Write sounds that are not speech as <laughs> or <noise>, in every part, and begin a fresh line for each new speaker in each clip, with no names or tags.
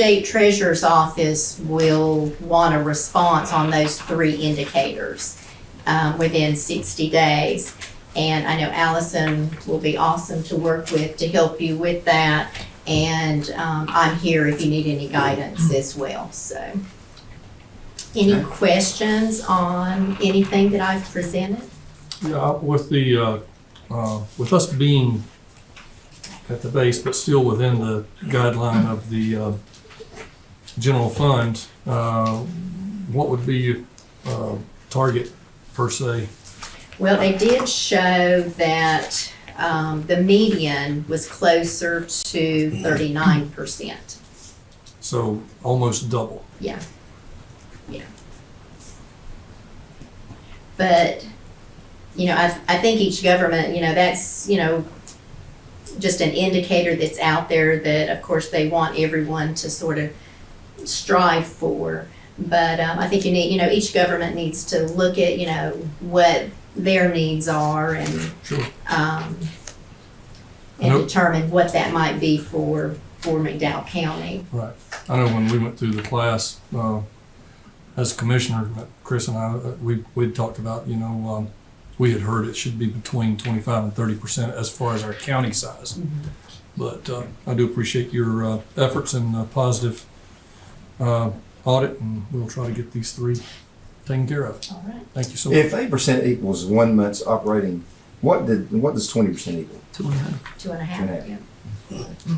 state treasurer's office will want a response on those three indicators um, within sixty days. And I know Allison will be awesome to work with to help you with that. And um, I'm here if you need any guidance as well, so. Any questions on anything that I've presented?
Yeah, with the, uh, uh, with us being at the base, but still within the guideline of the uh, general fund, uh, what would be your uh, target per se?
Well, they did show that um, the median was closer to thirty-nine percent.
So almost double.
Yeah. Yeah. But, you know, I, I think each government, you know, that's, you know, just an indicator that's out there that, of course, they want everyone to sort of strive for. But um, I think you need, you know, each government needs to look at, you know, what their needs are and,
Sure.
um, and
Nope.
determine what that might be for, for McDowell County.
Right. I know when we went through the class, uh, as a commissioner, Chris and I, uh, we, we'd talked about, you know, um, we had heard it should be between twenty-five and thirty percent as far as our county size. But, uh, I do appreciate your, uh, efforts and uh positive, uh, audit and we'll try to get these three taken care of.
All right.
Thank you so much.
If eight percent equals one month's operating, what did, what does twenty percent equal?
Two and a
Two and a
half,
half.
yeah.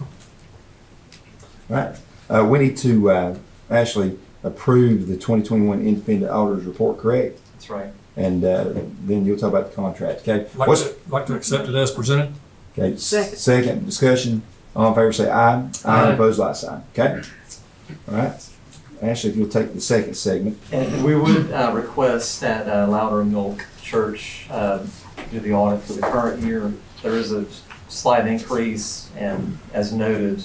Right? Uh, we need to, uh, actually approve the twenty twenty-one independent auditors report, correct?
That's right.
And, uh, then you'll talk about the contract, okay?
Like
What's-
to, like to accept it as presented?
Okay,
Second.
second discussion, all in favor say aye. Aye,
Aye.
opposed, like sign, okay? All right. Ashley, if you'll take the second segment,
And we would uh, request that uh, Louder Milk Church uh, do the audit for the current year. There is a slight increase, and as noted,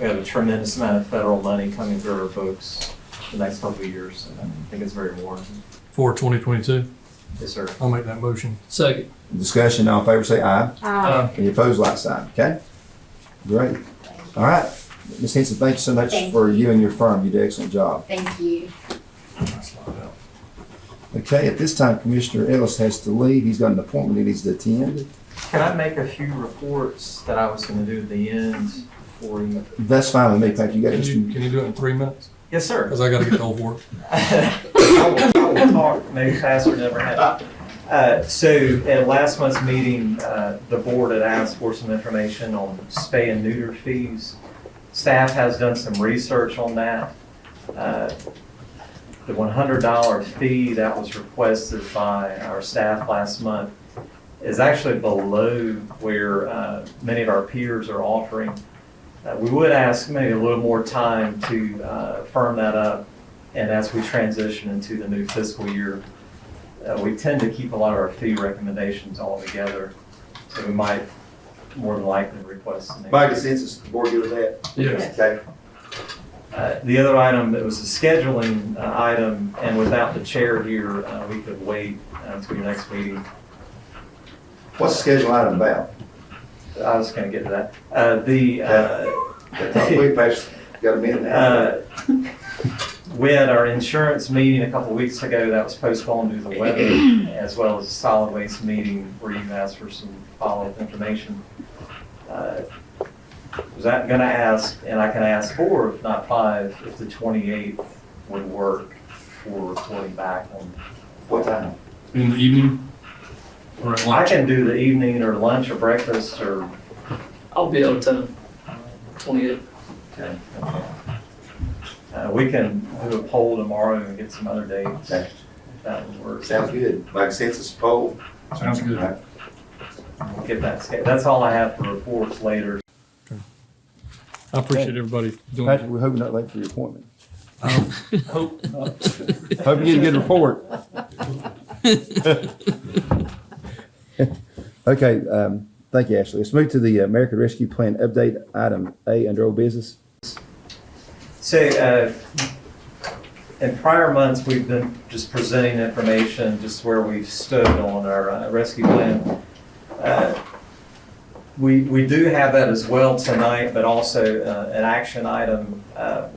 we have a tremendous amount of federal money coming through our books the next couple of years, and I think it's very warranted.
For twenty twenty-two?
Yes, sir.
I'll make that motion. Uh, Second.
discussion, all in favor say aye.
Um,
Aye.
Any opposed, like sign, okay? Great. All right. Ms. Henson, thank you so much
Thank you.
for you and your firm. You did an excellent job.
Thank you.
Okay, at this time Commissioner Ellis has to leave. He's got an appointment he needs to attend.
Can I make a few reports that I was going to do at the end before you?
That's fine with me, Thank You got
Can
just,
you, can you do it in three minutes?
Yes, sir.
Cause I gotta get the whole board.
I will- I will talk maybe faster than I ever have. Uh, So at last month's meeting, uh, the board had asked for some information on spay and neuter fees. Staff has done some research on that. Uh, The $100 fee that was requested by our staff last month is actually below where uh, many of our peers are offering. Uh, We would ask maybe a little more time to uh, firm that up and as we transition into the new fiscal year, uh, we tend to keep a lot of our fee recommendations all together. So we might more than likely request. an
by
increase.
consensus, the board good with that?
Yes.
Okay.
Uh, The other item that was a scheduling uh, item, and without the chair here, uh, we could wait uh, until your next meeting.
What's the schedule item about?
I was going to get to that. Uh, The, uh,
We passed, got a minute and a half.
uh, we had our insurance meeting a couple weeks ago that was postponed due to the weather, as well as a solid waste meeting where you asked for some follow-up information. Uh, Was that gonna ask, and I can ask four, if not five, if the twenty-eighth would work for reporting back on.
What time?
In the evening? Or at
I can do the evening or lunch or breakfast or.
I'll be out of town, twenty-eight.
Uh, we can do a poll tomorrow and get some other dates.
Okay.
if That would work.
Sounds good. By consensus, poll.
Sounds good.
Get that, sca- that's all I have for reports later.
I appreciate everybody doing Um,
Patrick,
that.
we're hoping not late for your appointment.
Hope not.
<laughs> Hope you get a good report. <laughs> Okay, um, thank you, Ashley. Let's move to the uh, American Rescue Plan update, item A under old business.
So, uh, in prior months, we've been just presenting information, just where we've stood on our uh, rescue plan. Uh, We, we do have that as well tonight, but also uh, an action item. Uh,